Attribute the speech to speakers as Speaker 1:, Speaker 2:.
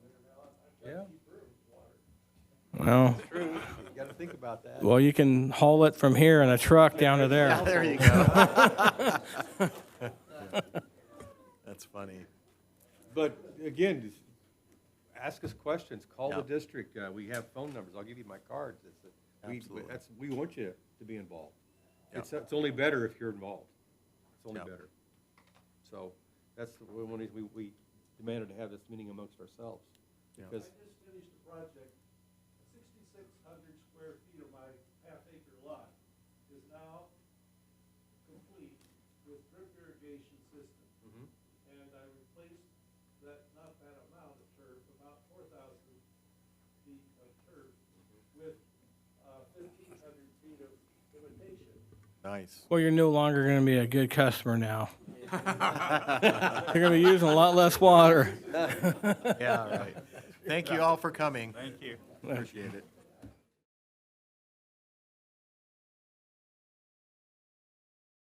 Speaker 1: Well,
Speaker 2: You gotta think about that.
Speaker 1: well, you can haul it from here in a truck down to there.
Speaker 3: There you go. That's funny.
Speaker 2: But again, just ask us questions, call the
Speaker 3: Yeah.
Speaker 2: district, uh, we have phone numbers, I'll give you my cards. It's a- we-
Speaker 3: Absolutely.
Speaker 2: That's, we want you to be involved.
Speaker 3: Yeah.
Speaker 2: It's, it's only better if you're involved. It's only
Speaker 3: Yeah.
Speaker 2: better. So that's the one reason we, we demanded to have this meeting amongst ourselves.
Speaker 3: Yeah.
Speaker 2: Because,
Speaker 4: I just finished a project, sixty-six hundred square feet of my half acre lot is now complete with drip irrigation system. And I replaced that, not that amount of turf, about four thousand feet of turf with uh, fifteen hundred feet of imitation.
Speaker 3: Nice.
Speaker 1: Well, you're no longer going to be a good customer now. You're going to be using a lot less water.
Speaker 3: Yeah, all right. Thank you all for coming. Thank you. Appreciate it.